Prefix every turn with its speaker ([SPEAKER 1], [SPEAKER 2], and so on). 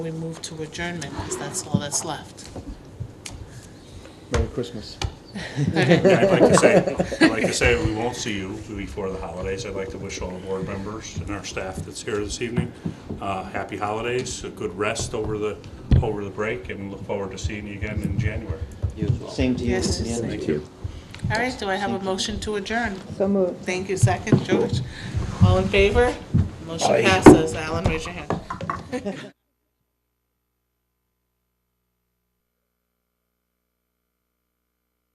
[SPEAKER 1] We move to adjournment, because that's all that's left.
[SPEAKER 2] Merry Christmas.
[SPEAKER 3] I'd like to say, I'd like to say we won't see you before the holidays. I'd like to wish all the board members and our staff that's here this evening, uh, happy holidays, a good rest over the, over the break, and look forward to seeing you again in January.
[SPEAKER 2] Same to you.
[SPEAKER 1] Yes,
[SPEAKER 2] Yeah.
[SPEAKER 1] same. Thank
[SPEAKER 2] you.
[SPEAKER 1] All right, do I have a motion to adjourn?
[SPEAKER 4] So moved.
[SPEAKER 1] Thank you, second, George. All in favor? Motion passes. Alan, raise your hand.